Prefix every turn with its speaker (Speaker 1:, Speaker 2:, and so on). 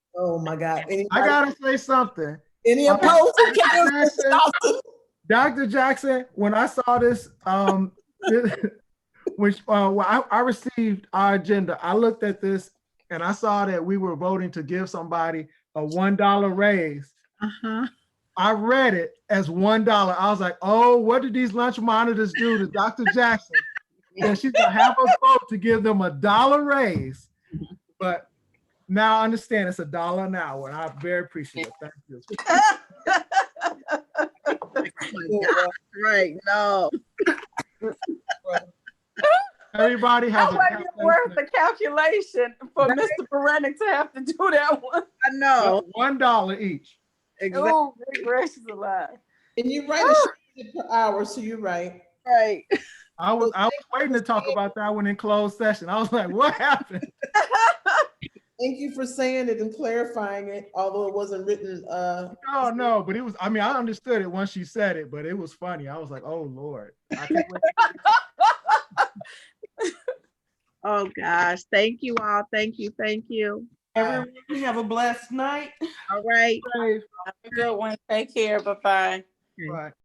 Speaker 1: Oh my God.
Speaker 2: I
Speaker 1: Anybody-
Speaker 2: gotta say something.
Speaker 1: Any
Speaker 2: I-
Speaker 1: opposed? to Karen Johnson?
Speaker 2: Dr. Jackson, when I saw this, um, which uh, well, I, I received our agenda, I looked at this and I saw that we were voting to give somebody a one dollar raise.
Speaker 3: Uh-huh.
Speaker 2: I read it as one dollar. I was like, oh, what did these lunch monitors do to Dr. Jackson? And she's gonna have us vote to give them a dollar raise. But now I understand it's a dollar an hour, and I very appreciate it. Thank you.
Speaker 3: Right, no.
Speaker 2: Everybody
Speaker 4: That
Speaker 2: has a
Speaker 4: wasn't even worth the calculation for
Speaker 3: Right.
Speaker 4: Mr. Berenik to have to do that one.
Speaker 3: I know.
Speaker 2: one dollar each.
Speaker 3: Exactly.
Speaker 4: Oh, good gracious alive.
Speaker 1: And you write a shit per hour, so you're right.
Speaker 3: Right.
Speaker 2: I was I was waiting to talk about that one in closed session. I was like, what happened?
Speaker 1: Thank you for saying it and clarifying it, although it wasn't written, uh,
Speaker 2: Oh no, but it was. I mean, I understood it once she said it, but it was funny. I was like, oh lord. I can't wait.
Speaker 3: Oh, gosh. Thank you all. Thank you. Thank you.
Speaker 5: Everyone, you have a blessed night.
Speaker 3: All right.
Speaker 2: Safe.
Speaker 5: Good one. Take care. Bye-bye.
Speaker 2: Right.